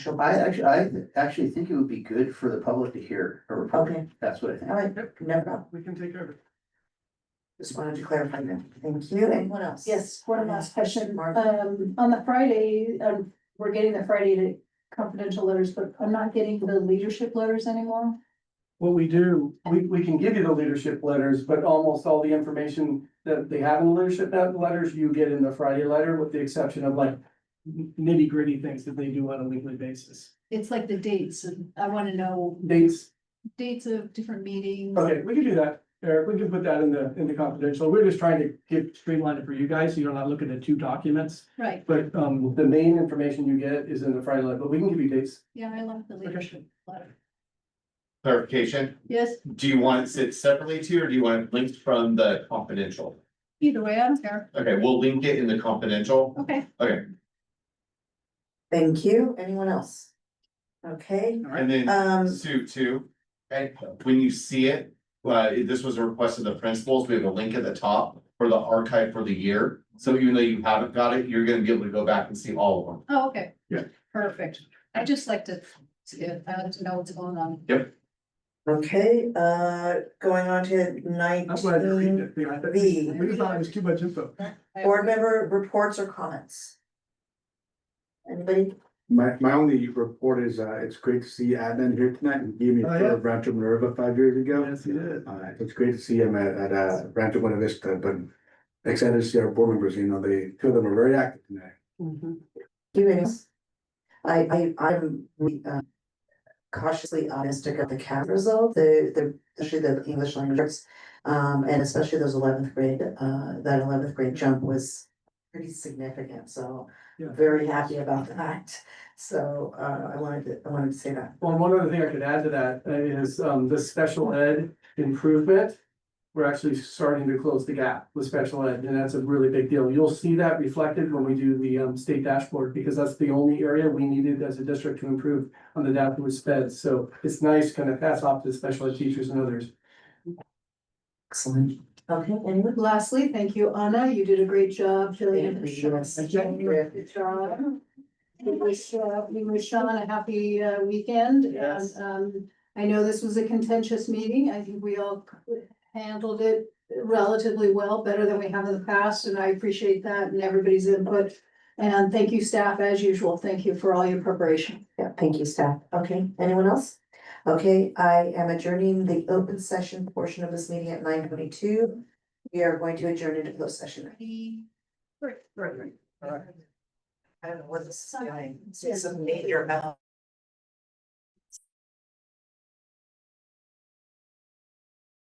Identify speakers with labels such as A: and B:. A: she'll
B: I
A: buy it.
B: actually, I actually think it would be good for the public to hear a report.
A: Okay,
B: That's what I think.
A: all right, no problem.
C: We can take over.
A: Just wanted to clarify that. Thank you. Anyone else?
D: Yes, one last question,
A: Mark.
D: um, on the Friday, um, we're getting the Friday to confidential letters, but I'm not getting the leadership letters anymore.
C: What we do, we, we can give you the leadership letters, but almost all the information that they have in the leadership net- letters, you get in the Friday letter, with the exception of like nitty gritty things that they do on a weekly basis.
D: It's like the dates, and I wanna know
C: Dates,
D: dates of different meetings.
C: okay, we can do that, Eric, we can put that in the, in the confidential, we're just trying to get streamlined it for you guys, so you're not looking at two documents.
D: Right,
C: But, um, the main information you get is in the Friday letter, but we can give you dates.
D: yeah, I love the leadership letter.
E: clarification,
D: Yes,
E: do you want it sit separately to, or do you want it linked from the confidential?
D: either way, I don't care.
E: Okay, we'll link it in the confidential.
D: Okay,
A: Thank you. Anyone else? Okay,
E: And then
A: um,
E: Sue too, okay, when you see it, uh, this was a request of the principals, we have a link at the top for the archive for the year. So even though you haven't got it, you're gonna be able to go back and see all of them.
D: oh, okay.
E: Yeah.
D: Perfect. I just like to, see it. I like to know what's going on.
A: okay, uh, going on to
C: I'm glad you read
A: nineteen,
C: it, I thought-
A: B.
C: we just thought it was too much info.
A: board member reports or comments? Anybody?
F: My, my only report is, uh, it's great to see admin here tonight and gave me a
C: Oh, yeah.
F: tour of Rancho Minerva five years ago.
C: Yes, you did.
F: Uh, it's great to see him at, at, uh, Rancho Buena Vista, but excited to see our board members, you know, they, two of them are very active tonight.
D: Mm-hmm.
A: You any? I, I, I'm re- uh, cautiously optimistic of the CAP result, the, the, especially the English language. arts, Um, and especially those eleventh grade, uh, that eleventh grade jump was pretty significant, so
C: Yeah.
A: very happy about that. So, uh, I wanted to, I wanted to say that.
C: Well, one other thing I could add to that uh, is um the special ed improvement. We're actually starting to close the gap with special ed, and that's a really big deal. You'll see that reflected when we do the um state dashboard, because that's the only area we needed as a district to improve on the data with sped. So it's nice kind of pass off to special ed teachers and others.
A: Excellent. Okay, anyone?
D: Lastly, thank you, Anna. You did a great job filling in the
A: Yes.
D: shoes. Good job. We wish, uh, we wish Sean a happy, uh, weekend. And,
C: Yes.
D: um, I know this was a contentious meeting. I think we all handled it relatively well, better than we have in the past, and I appreciate that and everybody's input. And thank you, staff, as usual. Thank you for all your preparation.
A: Yeah, thank you, staff. Okay, anyone else? Okay, I am adjourning the open session portion of this meeting at nine twenty-two. We are going to adjourn into closed session.
D: Great, great,
A: I don't know what this is, it's a meteor.